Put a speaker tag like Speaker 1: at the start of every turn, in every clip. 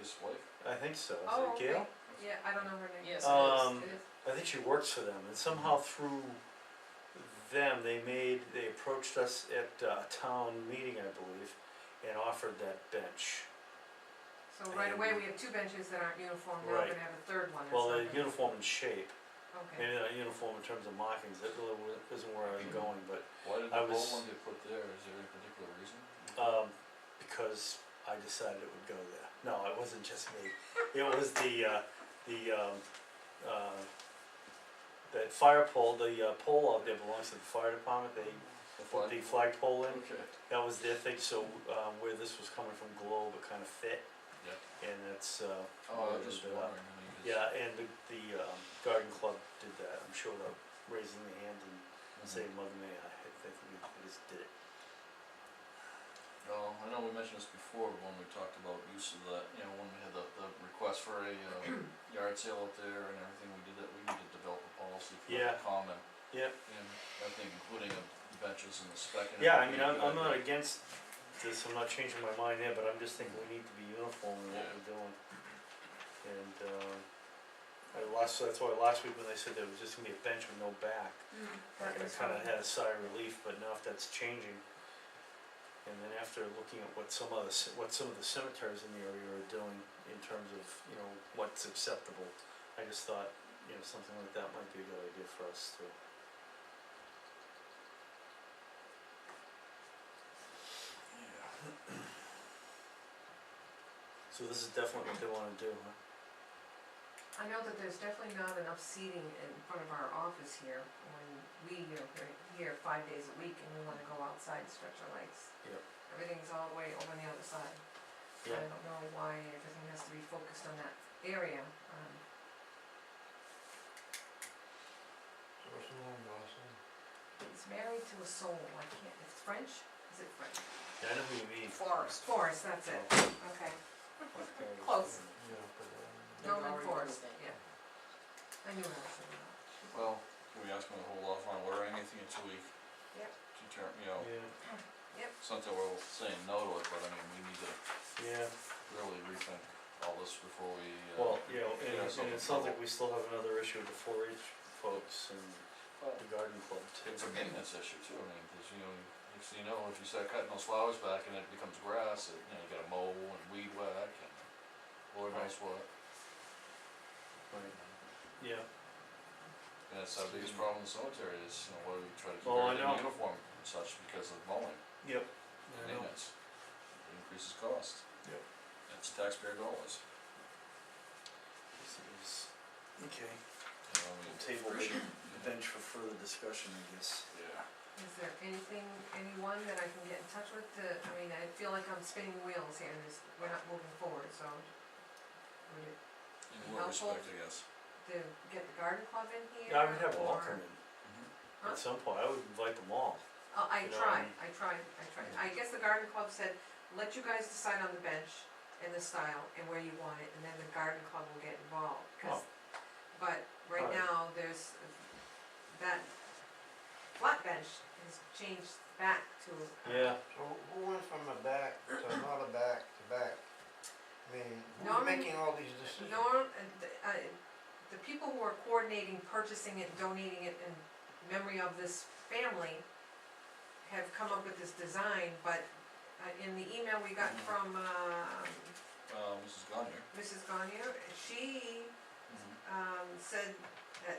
Speaker 1: his wife?
Speaker 2: I think so,
Speaker 3: Oh,
Speaker 2: is it
Speaker 3: okay,
Speaker 2: Gail?
Speaker 3: yeah, I don't know her name.
Speaker 4: Yes,
Speaker 2: Um,
Speaker 4: it is, it is.
Speaker 2: I think she works for them, and somehow through them, they made, they approached us at uh, a town meeting, I believe, and offered that bench.
Speaker 3: So right away,
Speaker 2: and-
Speaker 3: we have two benches that aren't uniform, now we're
Speaker 2: Right.
Speaker 3: gonna have a third one or
Speaker 2: Well, they're
Speaker 3: something.
Speaker 2: uniform in shape,
Speaker 3: Okay,
Speaker 2: maybe not uniform in terms of markings, that really wa- isn't where I was going, but,
Speaker 1: Why did
Speaker 2: I
Speaker 1: the
Speaker 2: was-
Speaker 1: whole one get put there, is there any particular reason?
Speaker 2: um, because I decided it would go there. No, it wasn't just me, it was the, uh, the, um, uh, that fire pole, the uh, pole out there belongs to the fire department, they
Speaker 1: The
Speaker 2: put
Speaker 1: flagpole?
Speaker 2: the flag pole in.
Speaker 1: Okay,
Speaker 2: That was their thing, so, um, where this was coming from Globe, it kinda fit,
Speaker 1: yeah,
Speaker 2: and that's, uh,
Speaker 1: oh, I
Speaker 2: Yeah,
Speaker 1: was just
Speaker 2: but, uh,
Speaker 1: wondering, I mean, 'cause-
Speaker 2: yeah, and the, the, um, garden club did that, I'm sure they're raising their hand and
Speaker 1: Mhm.
Speaker 2: saying, mother may I, I think we they just did it.
Speaker 1: Well, I know we mentioned this before when we talked about use of the, you know, when we had the, the request for a, uh, yard sale up there and everything, we did that, we need to develop a policy for
Speaker 2: Yeah.
Speaker 1: the common.
Speaker 2: Yep.
Speaker 1: And everything, including of the benches and the spec and everything.
Speaker 2: Yeah, I mean, I'm,
Speaker 1: good
Speaker 2: I'm not
Speaker 1: idea.
Speaker 2: against this, I'm not changing my mind there, but I'm just thinking we need to be uniform in what
Speaker 1: Yeah.
Speaker 2: we're doing. And, um, I last, that's why last week when they said there was just gonna be a bench with no back,
Speaker 3: Mm,
Speaker 2: I
Speaker 3: that was
Speaker 2: kinda
Speaker 3: fun.
Speaker 2: had a sigh of relief, but now if that's changing. And then after looking at what some of the, c- what some of the cemeteries in the area are doing in terms of, you know, what's acceptable, I just thought, you know, something like that might be a good idea for us to.
Speaker 1: Yeah,
Speaker 2: So this is definitely what they wanna do, huh?
Speaker 3: I know that there's definitely not enough seating in front of our office here, when we, you know, we're here five days a week and we wanna go outside and stretch our legs.
Speaker 2: Yep.
Speaker 3: Everything's all the way over on the other side. I
Speaker 2: Yeah,
Speaker 3: don't know why everything has to be focused on that area, um, he's married to a soul, I can't, it's French, is it French?
Speaker 2: Yeah, I know who you mean.
Speaker 4: Forest.
Speaker 3: Forrest, that's it,
Speaker 2: Oh,
Speaker 3: okay,
Speaker 2: okay.
Speaker 3: Close.
Speaker 4: They've
Speaker 3: Norman
Speaker 4: already
Speaker 3: Forrest,
Speaker 4: built it.
Speaker 3: yeah. I knew I was thinking about.
Speaker 1: well, can we ask them to hold off on ordering anything until we
Speaker 3: Yep.
Speaker 1: determine, you know,
Speaker 2: uh, Yeah,
Speaker 1: it's not that we're saying no to it, but I mean, we need to
Speaker 2: yeah,
Speaker 1: really rethink all this before we, uh.
Speaker 2: well, you know,
Speaker 1: get
Speaker 2: and,
Speaker 1: ourselves in
Speaker 2: and it sounds
Speaker 1: trouble.
Speaker 2: like we still have another issue with the four H folks and
Speaker 4: Well,
Speaker 2: the garden club too.
Speaker 1: It's a maintenance issue too, I mean, cause you know, next thing you know, if you start cutting those flowers back and it becomes grass, it, you know, you gotta mow and weed whack and Lord knows what.
Speaker 2: Right. Yeah,
Speaker 1: And that's our biggest problem in the cemetery is, you know, why we try to keep
Speaker 2: Oh, I know.
Speaker 1: everything uniform and such because of mowing,
Speaker 2: yep. I know.
Speaker 1: maintenance, It increases cost.
Speaker 2: Yep.
Speaker 1: That's taxpayer dollars,
Speaker 2: This is- Okay,
Speaker 1: you know, I mean.
Speaker 2: Table
Speaker 1: for sure.
Speaker 2: bench for further discussion, I guess.
Speaker 1: Yeah.
Speaker 3: Is there anything, anyone that I can get in touch with to, I mean, I feel like I'm spinning wheels here and this, we're not moving forward, so. Would it,
Speaker 1: In what
Speaker 3: Helpful.
Speaker 1: respect, I guess.
Speaker 3: to get the garden club in here?
Speaker 2: Yeah, I would have Mm-hmm. them all
Speaker 3: or-
Speaker 2: come in
Speaker 3: Huh?
Speaker 2: at some point, I would invite them all.
Speaker 3: Oh,
Speaker 2: you
Speaker 3: I
Speaker 2: know,
Speaker 3: tried,
Speaker 2: and-
Speaker 3: I tried, I tried, I guess the garden club said, let you guys decide on the bench and the style and where you want it, and then the garden club will get involved, 'cause- But right
Speaker 2: Alright.
Speaker 3: now, there's, that flat bench has changed back to. uh,
Speaker 2: Yeah,
Speaker 5: So who went from a back to not a back to back? I mean, who's
Speaker 3: Norman-
Speaker 5: making all these decisions?
Speaker 3: Norm, uh, th- uh, the people who are coordinating purchasing it, donating it in memory of this family have come up with this design, but uh, in the email we got
Speaker 2: Mm.
Speaker 3: from um,
Speaker 1: Uh, Mrs. Gardner.
Speaker 3: Mrs. Gagne, she um, said that,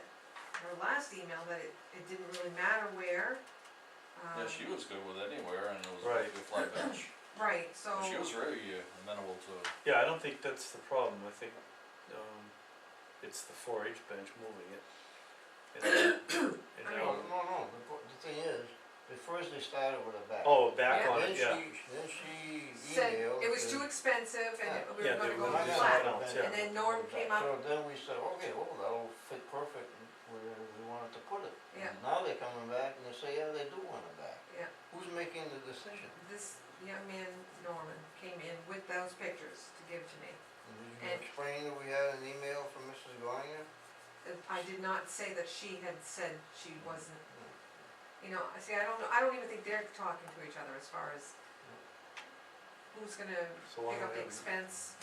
Speaker 3: her last email, that it, it didn't really matter where.
Speaker 1: Yeah,
Speaker 3: um,
Speaker 1: she was good with anywhere and it was
Speaker 2: Right.
Speaker 1: a good flat bench.
Speaker 3: Right, so.
Speaker 1: She was very uh, amenable to,
Speaker 2: yeah, I don't think that's the problem, I think, um, it's the four H bench moving it. And then, and
Speaker 3: I
Speaker 2: now,
Speaker 5: No, no, no, the, po- the thing is, at first they started with a back.
Speaker 2: oh, back
Speaker 3: Yeah.
Speaker 2: on it, yeah,
Speaker 5: Then she, then she
Speaker 3: Said
Speaker 5: emailed.
Speaker 3: it was too
Speaker 5: and-
Speaker 3: expensive and
Speaker 5: Yeah.
Speaker 3: we were
Speaker 2: Yeah,
Speaker 3: gonna
Speaker 2: they
Speaker 3: go
Speaker 2: were
Speaker 3: with
Speaker 2: just
Speaker 3: flat.
Speaker 2: gonna- yeah.
Speaker 3: And then Norm came up-
Speaker 5: So then we said, okay, well, that'll fit perfect where we wanted to put it.
Speaker 3: Yeah.
Speaker 5: And Now they're coming back and they say, yeah, they do want it back.
Speaker 3: Yeah.
Speaker 5: Who's making the decision?
Speaker 3: This young man, Norman, came in with those pictures to give to me.
Speaker 5: And Did you
Speaker 3: And-
Speaker 5: explain that we had an email from Mrs. Gonya?
Speaker 3: If I did not say that she had said she wasn't, you know, I see, I don't know, I don't even think they're talking to each other as far as who's gonna
Speaker 2: so why
Speaker 3: pick
Speaker 2: don't
Speaker 3: up the
Speaker 2: we,
Speaker 3: expense.